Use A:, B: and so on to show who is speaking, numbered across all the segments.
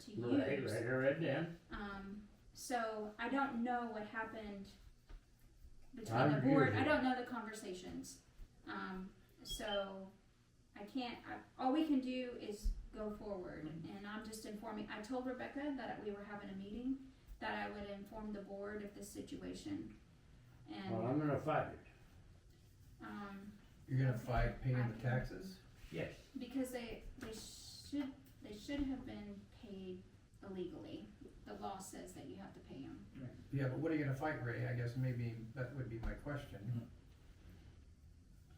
A: to
B: Right,
A: use.
B: right, I read them.
A: Um, so I don't know what happened
B: I
A: between the
B: agree
A: board,
B: with
A: I
B: you.
A: don't know the conversations. Um, so I can't, I, all we can do is go forward
B: Mm-hmm.
A: and I'm just informing, I told Rebecca that we were having a meeting, that I would inform the board of this situation.
B: Well,
A: And,
B: I'm gonna fight it,
A: um,
C: You're gonna fight paying the taxes?
B: yes.
A: Because they they should they should have been paid illegally. The law says that you have to pay them.
C: Yeah, but what are you gonna fight, Ray? I guess maybe that would be my question.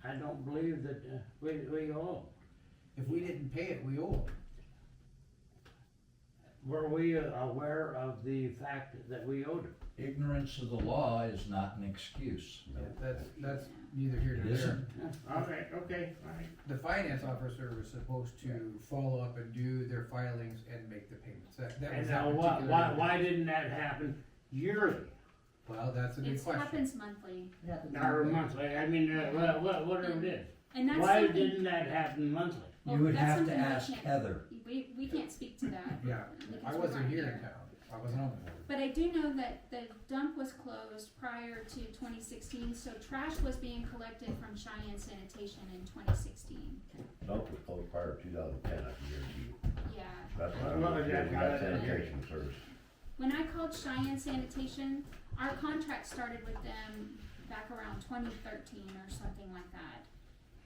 B: I don't believe that, uh, we, we all,
C: If we didn't pay it, we owe
B: were we aware of the fact that we owed it?
D: Ignorance of the law is not an excuse.
C: it. That's, that's neither here
D: It
C: nor there.
D: isn't.
B: Yeah, All right, okay, all right.
C: The finance officer was supposed to follow up and do their filings and make the payments. That, that was
B: And
C: that
B: now, why,
C: particular.
B: why, why didn't that happen yearly,
C: Well, that's a good
A: It
C: question.
A: happens monthly,
B: or monthly, I mean, uh, wha- wha- whatever it
A: and
B: is?
A: that's
B: Why
A: something
B: didn't that happen monthly?
A: Well,
D: You would
A: that's
D: have to
A: something we
D: ask
A: can't-
D: Heather.
A: we we can't speak to that.
C: Yeah,
A: because
C: I
A: we
C: wasn't
A: weren't
C: here in town. I wasn't on the board.
A: But I do know that the dump was closed prior to 2016, so trash was being collected from Cheyenne Sanitation in 2016.
E: Dump was closed prior to two thousand ten, I can guarantee you.
A: Yeah.
E: That's why
B: Well,
E: we
B: yeah,
E: have got
B: yeah, yeah.
E: sanitation service.
A: When I called Cheyenne Sanitation, our contract started with them back around twenty thirteen or something like that.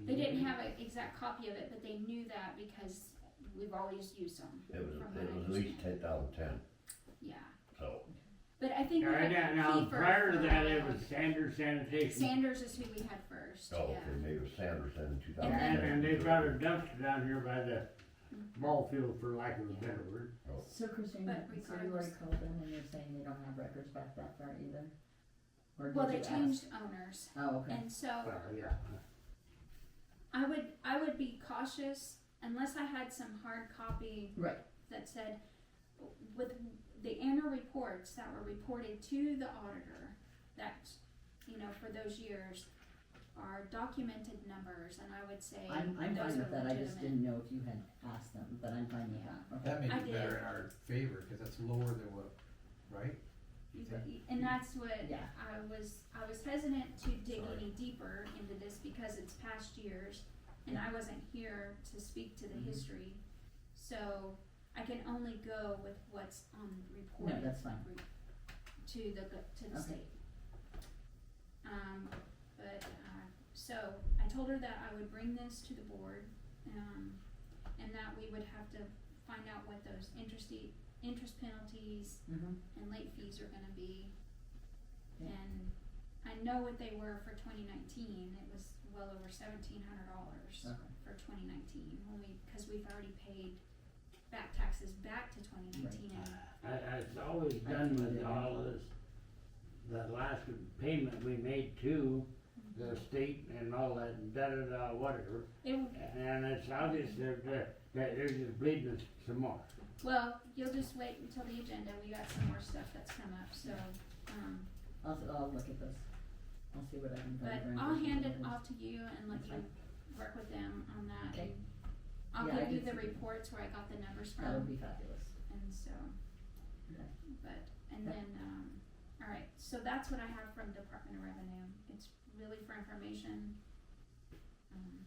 A: They didn't have an exact copy of it, but they knew that because we've always used them.
E: It was,
A: From
E: it
A: what I
E: was at least ten
A: understand.
E: thousand ten,
A: Yeah,
E: so. oh,
A: but I think.
B: All
A: we
B: right,
A: had
B: now, now,
A: Kiefer
B: prior to
A: for a
B: that, it
A: while.
B: was Sanders Sanitation,
A: Sanders is who we had first,
E: Oh, okay,
A: yeah.
E: maybe it was Sanders then in two thousand
B: and,
E: ten.
B: and they brought a dumpster down here by the ball field, for lack of a better word.
F: So Christina,
A: But
F: so you already
A: regardless-
F: called them and you're saying they don't have records back that far either? Or
A: Well,
F: did
A: they
F: you ask?
A: changed owners,
F: Oh, okay.
A: and so.
B: Well, yeah.
A: I would I would be cautious unless I had some hard copy
F: Right.
A: that said with the annual reports that were reported to the auditor that you know for those years are documented numbers and I would say
F: I'm, I'm
A: those are
F: fine with that, I just
A: legitimate.
F: didn't know if you had asked them, but I'm fine with that, okay?
C: That may
A: I did.
C: be better in our favor, cause that's lower than what, right?
A: You- And that's what
F: Yeah.
A: I was, I was hesitant to dig
C: Sorry.
A: any deeper into this because it's past years and I wasn't here to speak to the
F: Mm-hmm.
C: Mhm.
A: history. So I can only go with what's on report.
F: No, that's fine.
A: To the, go- to the
F: Okay.
A: state. Um, but, uh, so I told her that I would bring this to the board, um, and that we would have to find out what those interest, interest penalties
F: Mm-hmm,
A: and late fees are gonna be.
F: Yeah.
A: And I know what they were for twenty nineteen, it was well over seventeen hundred dollars
F: okay,
A: for twenty nineteen, when we, cause we've already paid back taxes back to twenty nineteen.
B: I, I- it's always done with all of this, the last payment we made to the state and all that, and da-da-da, whatever.
A: It, w-
B: And it's obvious that, that, that they're just bleeding us some more.
A: well, you'll just wait until the agenda, we got some more stuff that's come up, so, um,
F: I'll, s- I'll look at this, I'll see what I can.
A: but
F: find for
A: I'll hand it
F: information.
A: off to you and let
F: That's
A: you work with them on that. and
F: Okay.
A: I'll
F: Yeah, I
A: give you the
F: can see that. Oh,
A: reports where I got the numbers from.
F: That would be fabulous,
A: And so,
F: Okay.
A: but, and then, um, all right, so that's what I have from Department of Revenue. It's really for information. Um,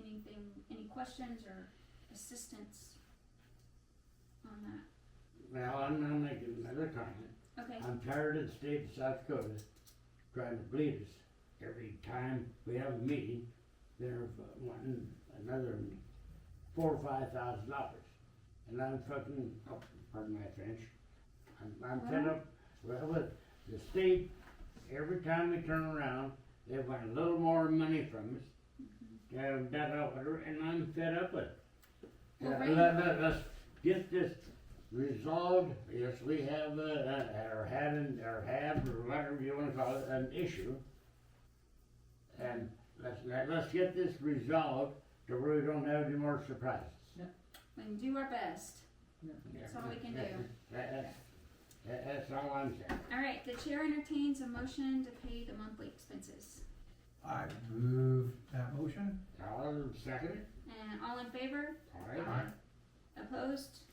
A: Anything, any questions or assistance on that?
B: Well, I'm gonna make another comment.
A: Okay,
B: I'm tired of the state of South Dakota trying to bleed us. Every time we have a meeting, they're uh, wanting another four or five thousand dollars. And I'm fucking, oh, pardon my French, I'm, I'm fed up, well, with the state, every time we turn around, they want a little more money from us. Da, da, da, whatever, and I'm fed up with it.
A: Mm-hmm. Well,
B: Uh,
A: right-
B: Let, let, us get this resolved, yes, we have, uh, uh, or had, an- or have, or whatever you wanna call it, an issue. And let's, let- let's get this resolved to where we don't have any more surprises.
A: we can do our best. That's all we can do.
B: That- that's- that- that's all I'm saying.
A: All right, the chair entertains a motion to pay the monthly expenses.
C: I move that motion.
B: I'll second it,
A: And all in favor?
B: all right?
A: Opposed?